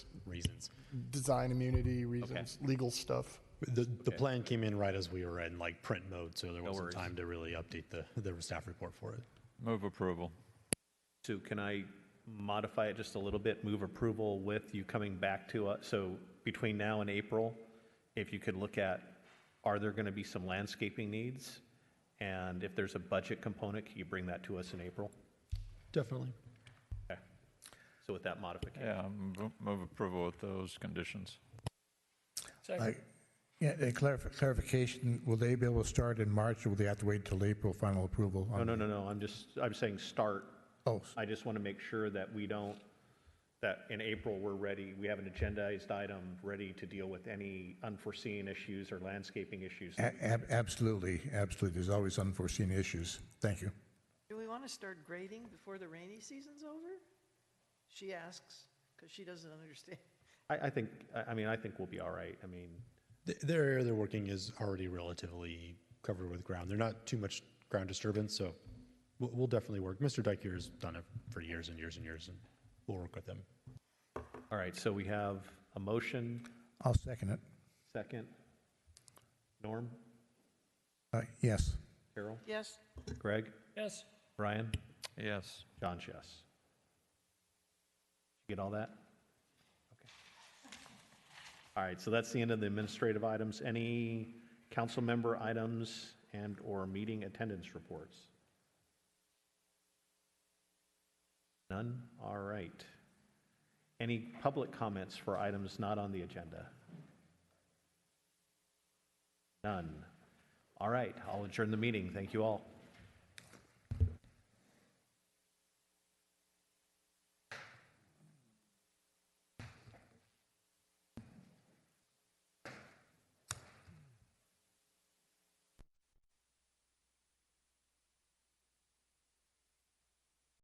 reasons. design immunity reasons, legal stuff. The, the plan came in right as we were in like print mode, so there wasn't worries. time to really update the, the staff report for it. Move approval. So can I modify it just a little bit, move approval with you coming back to us? So between now and April, if you could look at, are there going to be some landscaping needs? And if there's a budget component, can you bring that to us in April? Definitely. Okay. So with that modification. Yeah, move- move approval with those conditions. I- Yeah, a clarif- clarification, will they be able to start in March, or will they have to wait till April final approval? No, no, no, no, I'm just, I'm saying start. Oh, I just want to make sure that we don't, that in April, we're ready, we have an agendized item ready to deal with any unforeseen issues or landscaping issues. a- ab- absolutely, absolutely, there's always unforeseen issues. Thank you. Do we want to start grading before the rainy season's over? She asks, because she doesn't understand. I, I think, I- I mean, I think we'll be all right. I mean, The, their area they're working is already relatively covered with ground. They're not too much ground disturbance, so we'll, we'll definitely work. Mr. Dyke has done it for years and years and years, and we'll work with them. all right, so we have a motion, I'll second it. second. Norm, Uh, Yes. Carol, Yes, Greg, Yes. Brian, Yes. John's yes. You get all that? Okay. All right, so that's the end of the administrative items. Any council member items and/or meeting attendance reports? None? All right. Any public comments for items not on the agenda? None. All right, I'll adjourn the meeting. Thank you all.